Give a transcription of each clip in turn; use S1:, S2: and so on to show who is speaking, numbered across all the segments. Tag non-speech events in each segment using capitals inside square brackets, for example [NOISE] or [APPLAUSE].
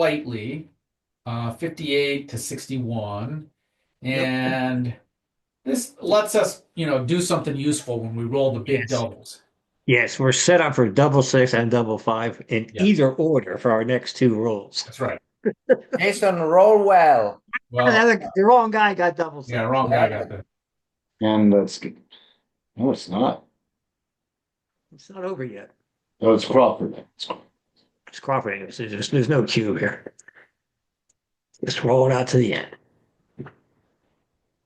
S1: slightly, uh, 58 to 61.
S2: Yep.
S1: And this lets us, you know, do something useful when we roll the big
S2: Yes.
S1: doubles.
S2: Yes, we're set up for double six and double five in
S1: Yeah.
S2: either order for our next two rolls.
S1: That's right.
S3: Jason, roll well.
S2: The,
S1: Well,
S2: other, the wrong guy got double six.
S1: yeah, wrong guy got the
S4: And that's good. No, it's not.
S2: It's not over yet.
S4: No, it's Crawford.
S2: It's cooperating. There's, there's, there's no cube here. Just roll it out to the end.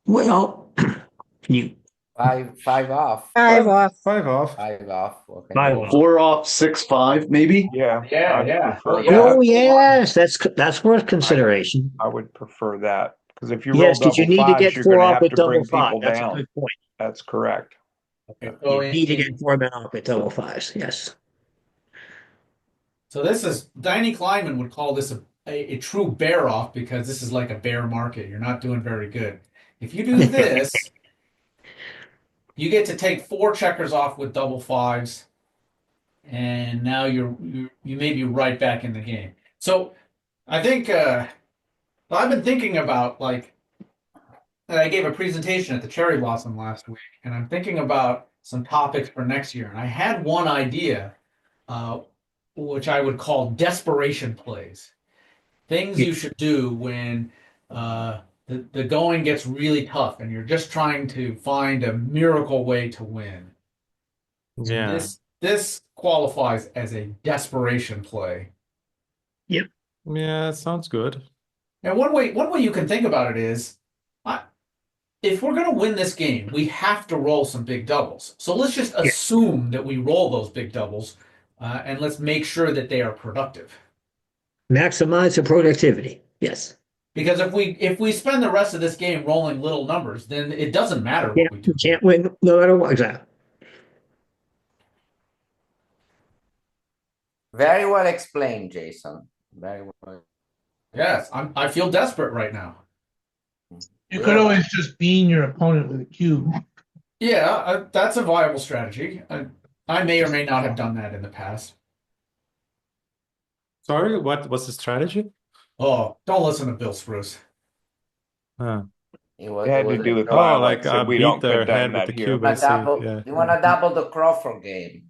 S2: Well, [CLEARS THROAT] you
S3: Five, five off.
S5: Five off.
S6: Five off.
S3: Five off. Okay.
S2: five off.
S4: Four off, six, five, maybe?
S6: Yeah.
S1: Yeah,
S6: I'd
S1: yeah.
S6: prefer
S1: Oh,
S6: that.
S1: yeah.
S2: Oh yes, that's that's worth consideration.
S6: I would prefer that because if you roll
S2: Yes, because you
S6: double
S2: need to
S6: fives,
S2: get
S6: you're
S2: four
S6: gonna
S2: off
S6: have
S2: with
S6: to
S2: double
S6: bring
S2: five.
S6: people
S2: That's a
S6: down.
S2: good point.
S6: That's correct.
S1: So
S2: You need to
S1: in-
S2: get four men off with double fives. Yes.
S1: So this is Danny Kleinman would call this a, a, a true bear off because this is like a bear market. You're not doing very good. If you do this, you get to take four checkers off with double fives, and now you're you, you may be right back in the game. So I think uh, I've been thinking about like and I gave a presentation at the Cherry Blossom last week, and I'm thinking about some topics for next year. And I had one idea. Uh, which I would call desperation plays. Things you should do when uh, the, the going gets really tough and you're just trying to find a miracle way to win.
S7: Yeah.
S1: This this qualifies as a desperation play.
S7: Yeah, it sounds good.
S1: And one way one way you can think about it is, I, if we're going to win this game, we have to roll some big doubles. So let's just assume that we roll those big doubles, uh, and let's make sure that they are productive.
S2: Maximize the productivity. Yes.
S1: Because if we if we spend the rest of this game rolling little numbers, then it doesn't matter what
S2: Yeah,
S1: we do.
S2: you can't win no matter what. Exactly.
S3: Very well explained, Jason. Very well.
S1: Yes, I'm I feel desperate right now.
S8: You could always just bean your opponent with a cube.
S1: Yeah, I, that's a viable strategy. I, I may or may not have done that in the past.
S7: Sorry, what was the strategy?
S1: Oh, don't listen to Bill Spruce.
S7: Huh.
S3: It was,
S6: It had to do with
S7: Oh,
S6: violence,
S7: like,
S6: and
S7: uh,
S6: we
S7: beat
S6: don't
S7: their
S6: condone
S7: head with
S6: that
S7: the
S6: here.
S7: cube.
S3: a
S7: Obviously,
S3: double,
S7: yeah.
S3: You want to double the Crawford game?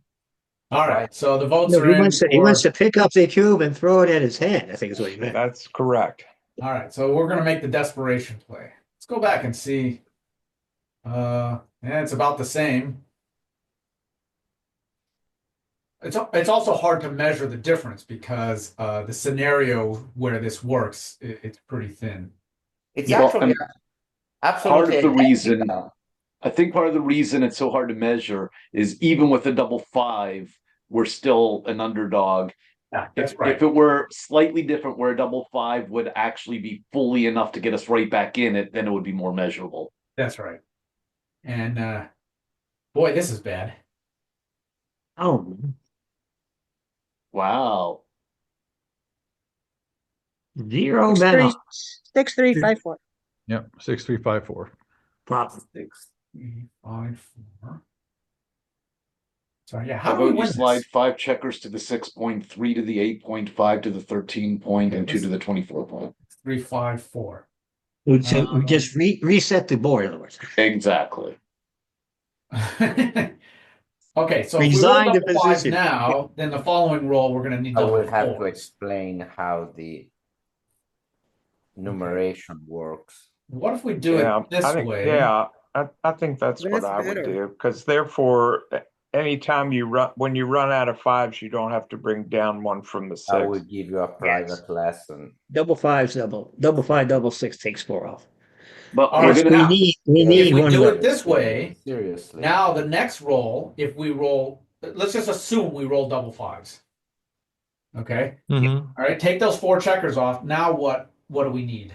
S1: All right, so the votes
S2: No,
S1: are
S2: he
S1: in.
S2: wants to he
S1: for-
S2: wants to pick up the cube and throw it at his hand. I think is what he meant.
S6: That's correct.
S1: All right, so we're gonna make the desperation play. Let's go back and see. Uh, yeah, it's about the same. It's al- it's also hard to measure the difference because uh, the scenario where this works i it's pretty thin.
S3: It's
S4: Yeah.
S3: actually
S4: Well,
S3: absolutely
S4: part of the reason-
S3: identical.
S4: I think part of the reason it's so hard to measure is even with a double five, we're still an underdog.
S1: Yeah,
S4: If, if it were slightly different, where a double five would actually be fully enough to get us right back in it, then it would be more measurable.
S1: That's right. And uh, boy, this is bad.
S2: Oh,
S4: Wow.
S2: zero
S5: Six,
S2: men
S5: three,
S2: off.
S5: six, three, five, four.
S9: Yep, six, three, five, four.
S2: Problem.
S1: Six, three, five, four. So yeah,
S4: How
S1: how do we
S4: about you
S1: win
S4: slide
S1: this?
S4: five checkers to the six point, three to the eight point, five to the thirteen point, and two to the twenty-four point?
S1: Three, five, four.
S2: We ju-
S8: Uh,
S2: we
S1: Um,
S2: just re- reset the board. In other words,
S4: Exactly.
S1: [LAUGHS] okay, so
S2: Resign
S1: if we roll
S2: the
S1: double five
S2: position.
S1: now, then the following roll we're going to need
S3: I
S1: double
S3: will have to
S1: fours.
S3: explain how the numeration works.
S1: What if we do
S6: Yeah,
S1: it this
S6: I think,
S1: way?
S6: Yeah, I, I think that's what
S5: That's
S6: I would
S5: better.
S6: do, because therefore, a- anytime you run, when you run out of fives, you don't have to bring down one from the
S3: I will
S6: six.
S3: give you a private lesson.
S2: double fives, double double five, double six takes four off.
S4: But
S1: All
S4: we're
S1: right,
S2: Yes,
S4: gonna
S1: now-
S2: we need we
S3: If
S2: need
S1: Ah. we
S2: one.
S1: do
S2: more.
S1: it this way,
S3: Seriously.
S1: Now the next roll, if we roll, let's just assume we roll double fives. Okay,
S2: Mm-hmm.
S7: Mhm.
S1: all right. Take those four checkers off. Now what? What do we need?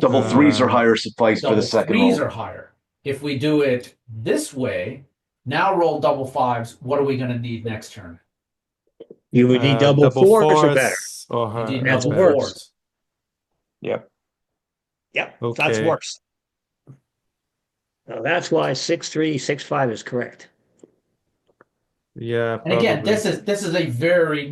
S4: Double threes or higher suffice for
S1: Double
S4: the second
S1: threes
S4: roll.
S1: or higher. If we do it this way, now roll double fives. What are we going to need next turn?
S2: You would need
S7: Uh,
S2: double, fours, or better.
S7: fours or
S1: We need
S7: higher,
S2: That's
S1: double
S2: worse.
S7: better.
S1: fours.
S2: Yep,
S7: Okay.
S2: that's worse. Now, that's why six three six five is correct.
S7: Yeah.
S1: And again,
S7: probably.
S1: this is this is a very